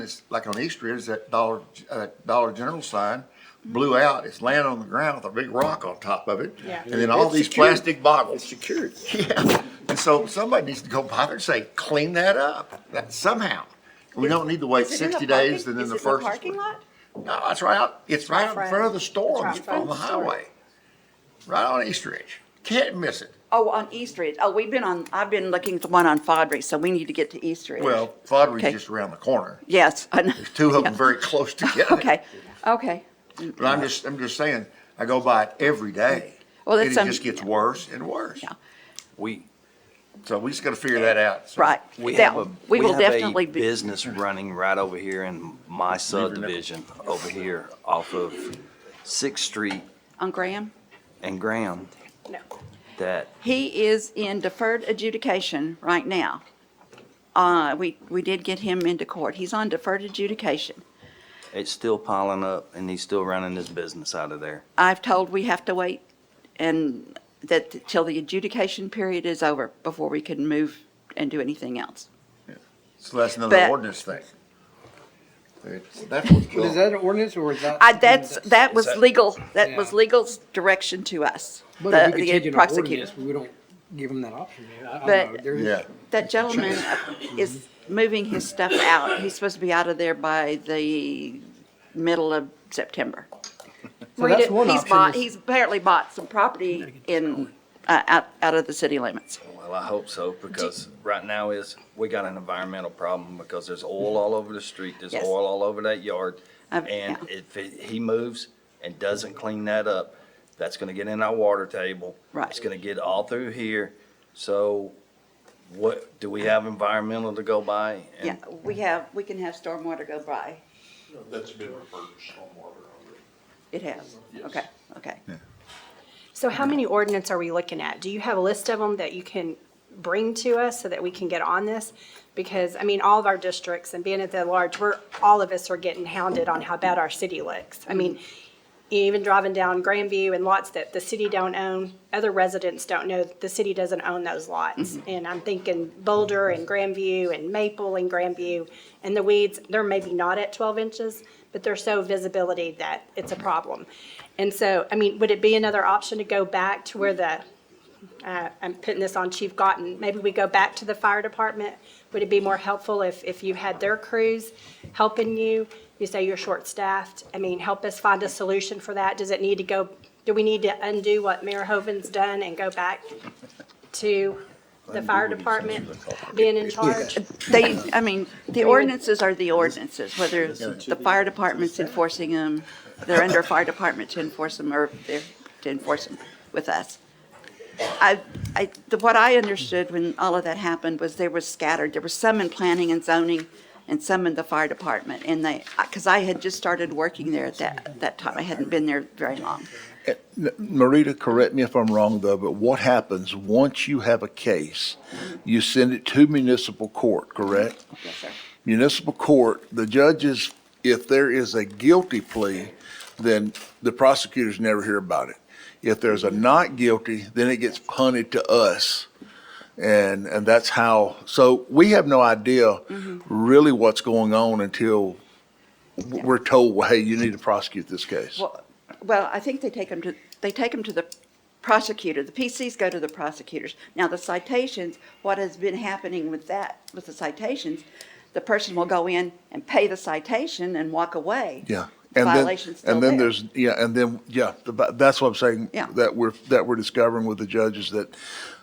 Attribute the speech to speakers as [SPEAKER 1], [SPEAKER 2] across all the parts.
[SPEAKER 1] is, like on East Ridge, that Dollar, uh, Dollar General sign blew out, it's laying on the ground with a big rock on top of it.
[SPEAKER 2] Yeah.
[SPEAKER 1] And then all
[SPEAKER 3] It's
[SPEAKER 1] these
[SPEAKER 3] secured.
[SPEAKER 1] plastic bottles.
[SPEAKER 3] It's secured.
[SPEAKER 1] Yeah, and so somebody needs to go bother and say, clean that up, that somehow. We don't need to wait
[SPEAKER 2] Is it in the
[SPEAKER 1] sixty days
[SPEAKER 2] parking-
[SPEAKER 1] and then
[SPEAKER 2] is
[SPEAKER 1] the
[SPEAKER 2] it in
[SPEAKER 1] first.
[SPEAKER 2] Parking lot?
[SPEAKER 1] No, it's right out, it's right out in front of the store
[SPEAKER 2] It's
[SPEAKER 1] on
[SPEAKER 2] right in
[SPEAKER 1] the- on
[SPEAKER 2] front
[SPEAKER 1] the
[SPEAKER 2] of the store.
[SPEAKER 1] highway. Right on East Ridge, can't miss it.
[SPEAKER 2] Oh, on East Ridge. Oh, we've been on, I've been looking at the one on Fodry, so we need to get to East Ridge.
[SPEAKER 1] Well, Fodry's
[SPEAKER 2] Okay.
[SPEAKER 1] just around the corner,
[SPEAKER 2] Yes, I know.
[SPEAKER 1] two of
[SPEAKER 2] Yeah.
[SPEAKER 1] them very close together.
[SPEAKER 2] Okay, okay.
[SPEAKER 1] But I'm just, I'm just saying, I go by it every day.
[SPEAKER 2] Well,
[SPEAKER 1] And it
[SPEAKER 2] that's, um,
[SPEAKER 1] just gets worse and worse.
[SPEAKER 2] Yeah.
[SPEAKER 4] We,
[SPEAKER 1] So we just gotta figure that out. So
[SPEAKER 2] Right.
[SPEAKER 4] we
[SPEAKER 2] Now,
[SPEAKER 4] have a,
[SPEAKER 2] we
[SPEAKER 4] we
[SPEAKER 2] will
[SPEAKER 4] have a
[SPEAKER 2] definitely be-
[SPEAKER 4] business running right over here in my subdivision, over here off of Sixth Street
[SPEAKER 2] On Graham?
[SPEAKER 4] and Graham,
[SPEAKER 2] No.
[SPEAKER 4] that
[SPEAKER 2] He is in deferred adjudication right now. Uh, we, we did get him into court. He's on deferred adjudication.
[SPEAKER 4] it's still piling up and he's still running his business out of there.
[SPEAKER 2] I've told we have to wait and that till the adjudication period is over before we can move and do anything else.
[SPEAKER 1] so that's another
[SPEAKER 2] But-
[SPEAKER 1] ordinance thing. It's- That's what's
[SPEAKER 3] But
[SPEAKER 1] going,
[SPEAKER 3] is that an ordinance or is that?
[SPEAKER 2] I, that's, that was
[SPEAKER 4] that-
[SPEAKER 2] legal, that was
[SPEAKER 3] Yeah.
[SPEAKER 2] legal's direction to us,
[SPEAKER 3] But if
[SPEAKER 2] the,
[SPEAKER 3] we could change
[SPEAKER 2] the
[SPEAKER 3] an
[SPEAKER 2] prosecutor.
[SPEAKER 3] ordinance, We don't give them that option, man. I-
[SPEAKER 2] But-
[SPEAKER 3] I don't know. There's-
[SPEAKER 1] yeah.
[SPEAKER 2] That gentleman is moving his stuff out. He's supposed to be out of there by the middle of September.
[SPEAKER 3] So
[SPEAKER 2] Read
[SPEAKER 3] that's
[SPEAKER 2] it.
[SPEAKER 3] one
[SPEAKER 2] He's
[SPEAKER 3] option
[SPEAKER 2] bought,
[SPEAKER 3] is-
[SPEAKER 2] he's apparently bought some property in, uh, out, out of the city limits.
[SPEAKER 4] Well, I hope so, because right now is, we got an environmental problem because there's oil all over the street, there's
[SPEAKER 2] Mm-hmm. Yes.
[SPEAKER 4] oil all over that yard.
[SPEAKER 2] I've-
[SPEAKER 4] And
[SPEAKER 2] yeah.
[SPEAKER 4] if it- he moves and doesn't clean that up, that's gonna get in our water table.
[SPEAKER 2] Right.
[SPEAKER 4] It's gonna get all through here. So what, do we have environmental to go by? And
[SPEAKER 2] Yeah, we have, we can have stormwater go by.
[SPEAKER 5] That's been referred to stormwater already.
[SPEAKER 2] It has. Okay, okay.
[SPEAKER 6] So how many ordinance are we looking at? Do you have a list of them that you can bring to us so that we can get on this? Because, I mean, all of our districts and being at the large, we're, all of us are getting hounded on how bad our city looks. I mean, even driving down Grandview and lots that the city don't own, other residents don't know, that the city doesn't own those lots. And I'm thinking Boulder and Grandview and Maple and Grandview, and the weeds, they're maybe not at twelve inches, but they're so visibility that it's a problem. And so, I mean, would it be another option to go back to where the, uh, I'm putting this on Chief Gotten, maybe we go back to the fire department? Would it be more helpful if, if you had their crews helping you? You say you're short-staffed, I mean, help us find a solution for that. Does it need to go, do we need to undo what Mayor Hoven's done and go back to the fire department being in charge?
[SPEAKER 2] They, I mean, the ordinances are the ordinances, whether the fire department's enforcing them, they're under fire department to enforce them, or they're to enforce them with us. I, I, the- what I understood when all of that happened was they were scattered. There were some in planning and zoning and some in the fire department. And they, because I had just started working there at that, that time. I hadn't been there very long.
[SPEAKER 7] N- Marita, correct me if I'm wrong though, but what happens once you have a case? You send it to municipal court, correct?
[SPEAKER 2] Yes, sir.
[SPEAKER 7] Municipal court, the judges, if there is a guilty plea, then the prosecutors never hear about it. If there's a not guilty, then it gets punted to us. And, and that's how, so we have no idea
[SPEAKER 2] Mm-hmm.
[SPEAKER 7] really what's going on until w- we're told, well, hey, you need to prosecute this case.
[SPEAKER 2] Well, well, I think they take them to, they take them to the prosecutor. The PCs go to the prosecutors. Now, the citations, what has been happening with that, with the citations, the person will go in and pay the citation and walk away.
[SPEAKER 7] Yeah.
[SPEAKER 2] The
[SPEAKER 7] And then-
[SPEAKER 2] violation's still
[SPEAKER 7] And then
[SPEAKER 2] there.
[SPEAKER 7] there's, yeah, and then, yeah, the vi- that's what I'm saying.
[SPEAKER 2] Yeah.
[SPEAKER 7] That we're, that we're discovering with the judges that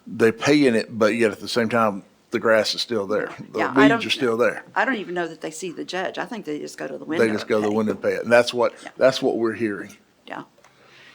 [SPEAKER 7] they pay in it, but yet at the same time, the grass is still there. The
[SPEAKER 2] Yeah, I
[SPEAKER 7] weeds
[SPEAKER 2] don't-
[SPEAKER 7] are still there.
[SPEAKER 2] I don't even know that they see the judge. I think they just go to the window.
[SPEAKER 7] They just go to the
[SPEAKER 2] and pay.
[SPEAKER 7] window and pay it. And that's what,
[SPEAKER 2] Yeah.
[SPEAKER 7] that's what we're hearing.
[SPEAKER 2] Yeah.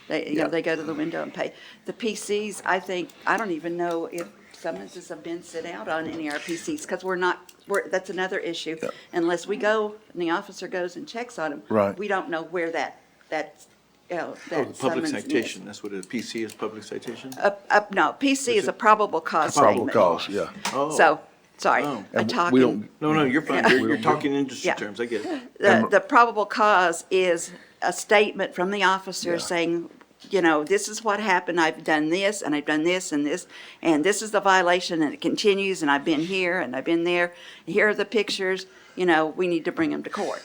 [SPEAKER 2] They, you know, they go to the window and pay. The PCs, I think, I don't even know if summonses have been sent out on any of our PCs, because we're not, we're, that's another issue.
[SPEAKER 7] Yeah.
[SPEAKER 2] Unless we go, and the officer goes and checks on them.
[SPEAKER 7] Right.
[SPEAKER 2] We don't know where that, that, you know,
[SPEAKER 5] Oh,
[SPEAKER 2] that
[SPEAKER 5] the public
[SPEAKER 2] summons
[SPEAKER 5] citation,
[SPEAKER 2] is.
[SPEAKER 5] that's what it is. PC is public citation?
[SPEAKER 2] Up, up, no, PC is a probable cause
[SPEAKER 7] Probable
[SPEAKER 2] statement.
[SPEAKER 7] cause, yeah.
[SPEAKER 5] Oh.
[SPEAKER 2] So, sorry,
[SPEAKER 5] Oh.
[SPEAKER 2] I
[SPEAKER 7] And
[SPEAKER 2] talk.
[SPEAKER 7] we
[SPEAKER 2] in-
[SPEAKER 7] don't-
[SPEAKER 5] No, no, you're fine. You're, you're talking industry
[SPEAKER 2] Yeah.
[SPEAKER 5] terms. I get it.
[SPEAKER 2] The, the probable cause is a statement from the officer saying, you know, this is what happened, I've done this, and I've done this, and this, and this is the violation, and it continues, and I've been here, and I've been there, here are the pictures, you know, we need to bring them to court.